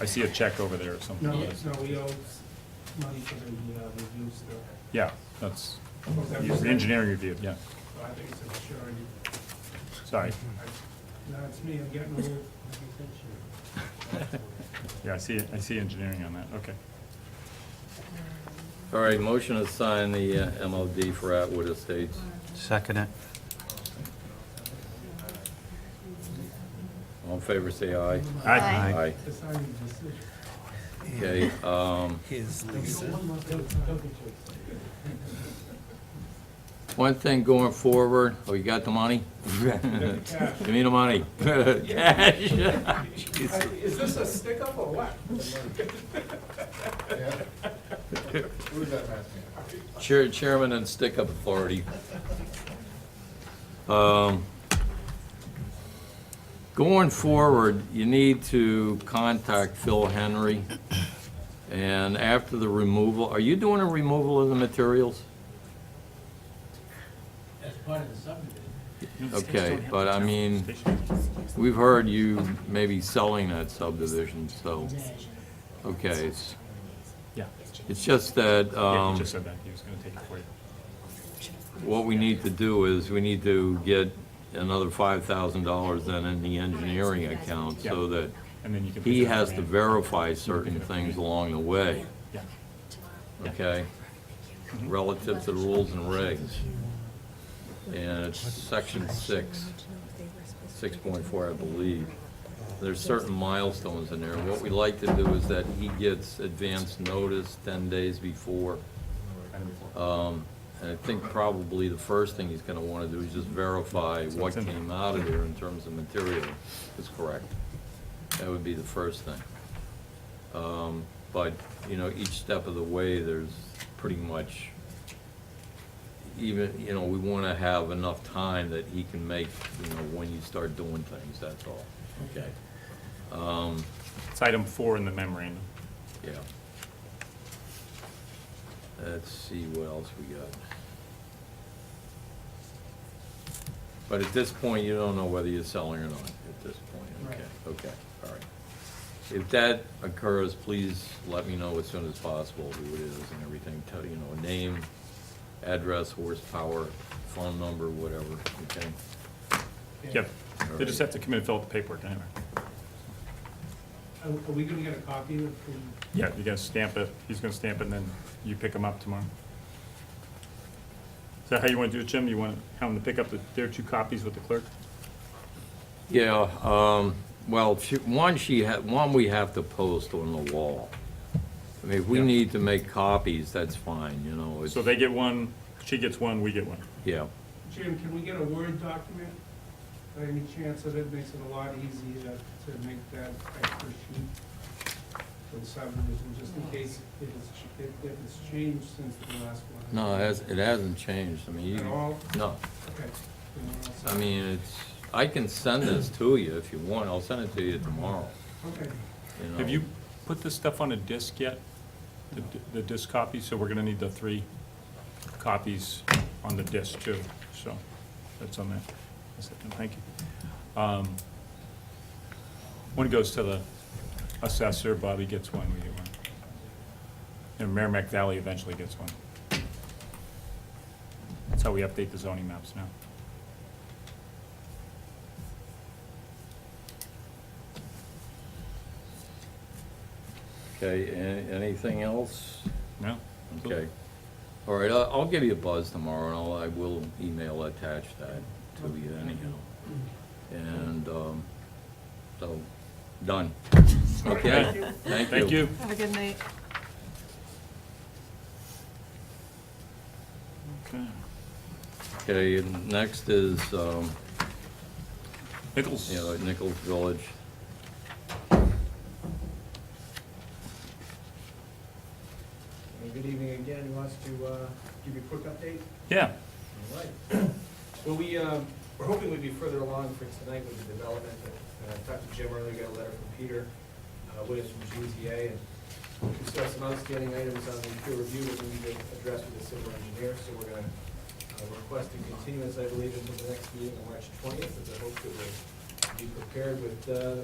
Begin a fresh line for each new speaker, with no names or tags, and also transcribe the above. I see a check over there or something.
No, no, we owe money for the uh, reviews, though.
Yeah, that's,
Was that
your
percent?
engineering review, yeah,
So I think it's a surety.
sorry.
I- No, it's me, I'm getting old.
Yeah, I see, I see engineering on that, okay.
All right, motion to sign the uh, MOD for Atwood Estates.
Second it.
All in favor, say aye.
Aye.
Aye.
The signing decision.
Okay, um,
Here's
Don't get-
Lisa.
one more thing, don't get you excited.
one thing going forward, oh, you got the money?
Get the cash.
Give me the money. Cash.
I- Is this a stick-up or what?
Chair- Chairman and stick-up authority. Um, Going forward, you need to contact Phil Henry, and after the removal, are you doing a removal of the materials? Okay, but I mean, we've heard you maybe selling that subdivision, so, okay, it's,
Yeah,
it's just that,
yeah,
um...
he just said that, he was gonna take it for you.
What we need to do is, we need to get another five thousand dollars then in the engineering account, so that
And then you can. pick
he
it up
has
from
to
there.
verify certain things along the way,
Yeah,
okay? Relative to the rules and regs. And it's section six, six point four, I believe. There's certain milestones in there. What we like to do is that he gets advance notice ten days before.
item four.
Um, And I think probably the first thing he's going to want to do is just verify
So
what
it's in there.
came out of there in terms of material is correct. That would be the first thing. Um, But, you know, each step of the way, there's pretty much, even, you know, we want to have enough time that he can make, you know, when you start doing things, that's all. Okay. Um,
It's item four in the memorandum.
yeah. Let's see what else we got. But at this point, you don't know whether you're selling or not, at this point, okay, okay, all right. If that occurs, please let me know as soon as possible who it is and everything, tell, you know, name, address, horsepower, phone number, whatever, okay?
Yep,
All
they just
right.
have to come in and fill out the paperwork anyway.
Are are we gonna get a copy of the,
Yeah, you're gonna stamp it, he's gonna stamp it, and then you pick him up tomorrow. Is that how you wanna do it, Jim? You wanna have him to pick up the- their two copies with the clerk?
Yeah, um, well, she- one she had, one we have to post on the wall. I mean, if we
Yeah.
need to make copies, that's fine, you know, it's,
So they get one, she gets one, we get one.
yeah.
Jim, can we get a Word document? By any chance that it makes it a lot easier to make that extra sheet for the subdivision, just in case if it's, ch- if if it's changed since the last one?
No, it hasn't, it hasn't changed, I mean,
At
you,
all?
no,
Okay. Then we're all set.
I mean, it's, I can send this to you if you want, I'll send it to you tomorrow,
Okay,
you know.
Have you put this stuff on a disc yet? The d- The disc copy, so we're gonna need the three copies on the disc too, so that's on that. That's it, Thank you. Um, One goes to the assessor, Bobby gets one, we get one. And Merrimack Valley eventually gets one. That's how we update the zoning maps now.
Okay, a- anything else?
No?
Okay. All right, I'll, I'll give you a buzz tomorrow, and I'll, I will email attach that to you anyhow. And, um, so, done. Okay, thank you.
Thank you.
Have a good night.
Okay.
Okay, and next is, um,
Nichols?
you know, Nichols Village.
Good evening again. Who wants to uh, give you a quick update?
Yeah.
All right. Well, we, um, we're hoping we'd be further along for tonight with the development. Uh, I talked to Jim earlier, got a letter from Peter uh, Williams from GZA, and we still have some outstanding items on the peer review that we need to address with the civil engineer, so we're gonna uh, request a continuance, I believe, until the next meeting on March twentieth, with the hope that we'll be prepared with uh, the